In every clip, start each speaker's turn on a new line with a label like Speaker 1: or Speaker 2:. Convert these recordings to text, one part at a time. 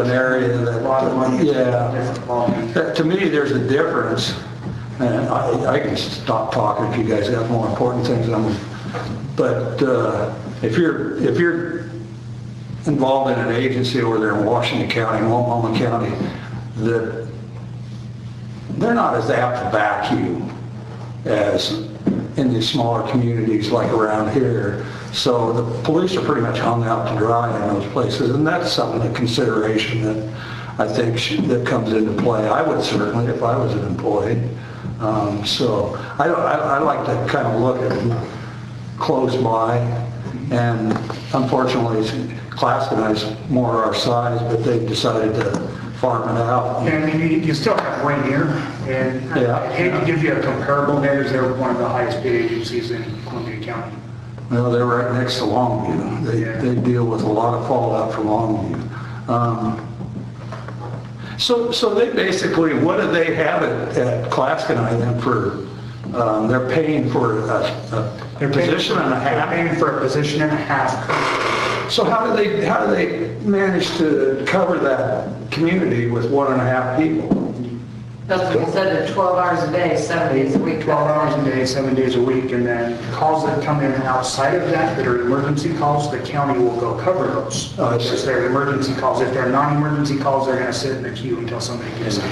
Speaker 1: an area that.
Speaker 2: A lot of money.
Speaker 1: Yeah.
Speaker 2: Different ball game.
Speaker 1: That- To me, there's a difference, and I, I can stop talking if you guys have more important things on, but uh, if you're, if you're involved in an agency over there in Washington County, in Multnomah County, that they're not as apt to back you as in these smaller communities like around here. So the police are pretty much hung out to dry in those places, and that's something, a consideration that I think should- that comes into play. I would certainly, if I was an employee. Um, So I don't, I I like to kind of look at close by, and unfortunately, Clastonite's more our size, but they've decided to farm it out.
Speaker 3: And I mean, you, you still have Rainier, and
Speaker 1: Yeah.
Speaker 3: I hate to give you a comparable there, because they're one of the highest paid agencies in Columbia County.
Speaker 1: Well, they're right next to Longview. They,
Speaker 3: Yeah.
Speaker 1: they deal with a lot of fallout from Longview. Um, So, so they basically, what do they have at, at Clastonite then for, um, they're paying for a- a
Speaker 3: They're paying-
Speaker 1: position and a
Speaker 3: They're
Speaker 1: half?
Speaker 3: paying for a position and a half.
Speaker 1: So how do they, how do they manage to cover that community with one and a half people?
Speaker 4: That's what we said, that 12 hours a day, seven days a week.
Speaker 3: 12 hours a day, seven days a week, and then calls that come in outside of that that are emergency calls, the county will go cover those.
Speaker 1: Oh, I see.
Speaker 3: If they're emergency calls, if they're non-emergency calls, they're gonna sit in the queue until somebody gets them.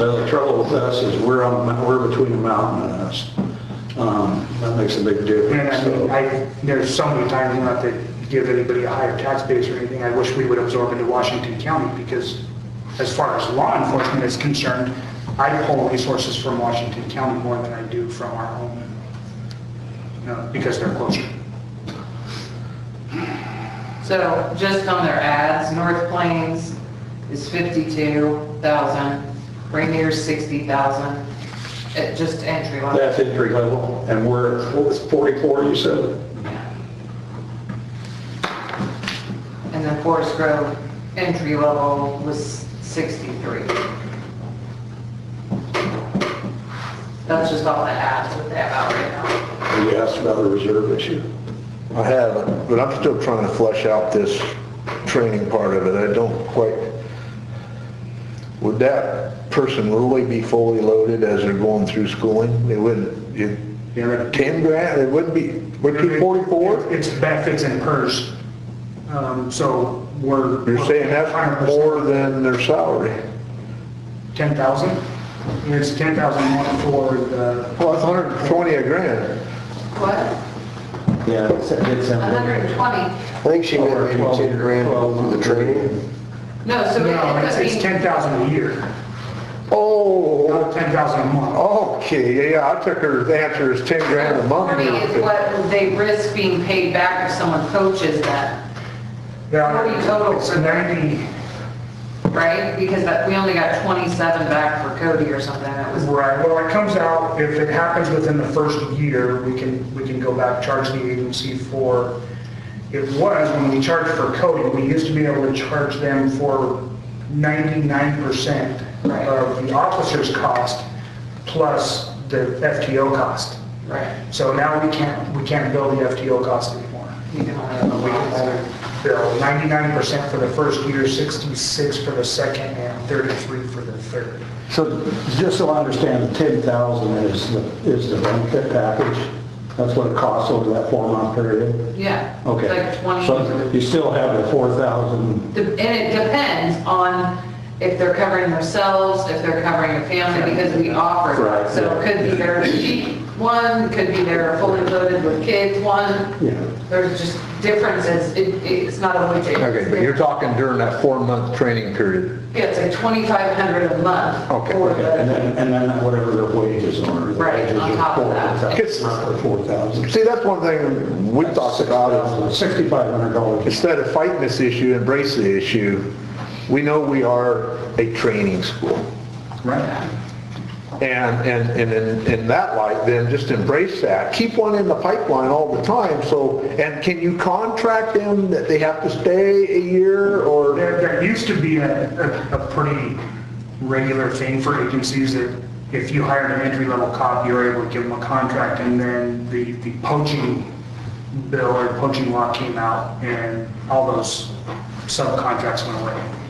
Speaker 1: Well, the trouble with us is we're on, a mou- we're between a mountain and us. Um, That makes a big
Speaker 3: And
Speaker 1: difference,
Speaker 3: I mean,
Speaker 1: so.
Speaker 3: I, there's so many times, not to give anybody a higher tax base or anything, I wish we would absorb into Washington County, because as far as law enforcement is concerned, I pull resources from Washington County more than I do from our own, you know, because they're closer.
Speaker 4: So just on their ads, North Plains is 52,000, Rainier's 60,000, at just entry level.
Speaker 1: That's entry level, and we're at four- 44, you said?
Speaker 4: And then Forest Grove, entry level was 63. That's just all the ads that they have out right now.
Speaker 1: You asked about the reserve issue.
Speaker 5: I haven't, but I'm still trying to flesh out this training part of it. I don't quite, would that person really be fully loaded as they're going through schooling? They wouldn't, you,
Speaker 3: They're at-
Speaker 5: 10 grand, it wouldn't be, would it be 44?
Speaker 3: It's benefits and PERS. Um, So we're.
Speaker 5: You're saying that's more than their salary?
Speaker 3: 10,000? It's 10,000 more for the,
Speaker 5: Well, that's 120 a grand.
Speaker 4: What?
Speaker 2: Yeah, it's a good something.
Speaker 4: 120?
Speaker 6: I think she meant maybe 10 grand to go through the training.
Speaker 4: No, so
Speaker 3: no, it's-
Speaker 4: it
Speaker 3: it's
Speaker 4: could be,
Speaker 3: 10,000 a year,
Speaker 5: Oh,
Speaker 3: not 10,000 a month.
Speaker 5: okay, yeah, I took her, the answer is 10 grand a month.
Speaker 4: for me, is what they risk being paid back if someone coaches that.
Speaker 3: Yeah,
Speaker 4: Forty total.
Speaker 3: It's 90,
Speaker 4: right? Because that, we only got 27 back for Cody or something, that was,
Speaker 3: right, well, it comes out, if it happens within the first year, we can, we can go back, charge the agency for, it was, when we charged for coding, we used to be able to charge them for 99%
Speaker 4: Right.
Speaker 3: of the officer's cost plus the FTO cost.
Speaker 4: right?
Speaker 3: So now we can't, we can't bill the FTO cost anymore.
Speaker 4: You can only have a
Speaker 3: We can
Speaker 4: lot.
Speaker 3: only bill 99% for the first year, 66 for the second, and 33 for the third.
Speaker 1: So just so I understand, the 10,000 is, the is the benefit package? That's what it costs over that four-month period?
Speaker 4: Yeah.
Speaker 1: Okay.
Speaker 4: Like 20.
Speaker 1: So you still have the 4,000,
Speaker 4: De- And it depends on if they're covering themselves, if they're covering a family, because we offer.
Speaker 1: Right,
Speaker 4: So it could be their cheap one, could be their fully loaded with kids one.
Speaker 1: you know?
Speaker 4: There's just differences, it, it's not a widget.
Speaker 5: Okay, but you're talking during that four-month training period.
Speaker 4: Yeah, it's like 2,500 a month.
Speaker 5: Okay,
Speaker 4: for
Speaker 5: okay.
Speaker 4: the-
Speaker 1: And then, and then whatever their wages are. the
Speaker 4: Right,
Speaker 1: wages
Speaker 4: on
Speaker 1: are
Speaker 4: top of that.
Speaker 1: 4,000,
Speaker 5: Gets-
Speaker 1: Roughly 4,000.
Speaker 5: See, that's one thing we talked about, is
Speaker 1: $6,500.
Speaker 5: instead of fighting this issue, embrace the issue. We know we are a training school.
Speaker 3: Right.
Speaker 5: And, and, and in, in that light, then just embrace that. Keep one in the pipeline all the time, so, and can you contract them that they have to stay a year or?
Speaker 3: There, there used to be a, a- a pretty regular thing for agencies that if you hired an entry-level cop, you were able to give them a contract, and then the, the poaching Bill or Punching Rock came out and all those subcontracts went away.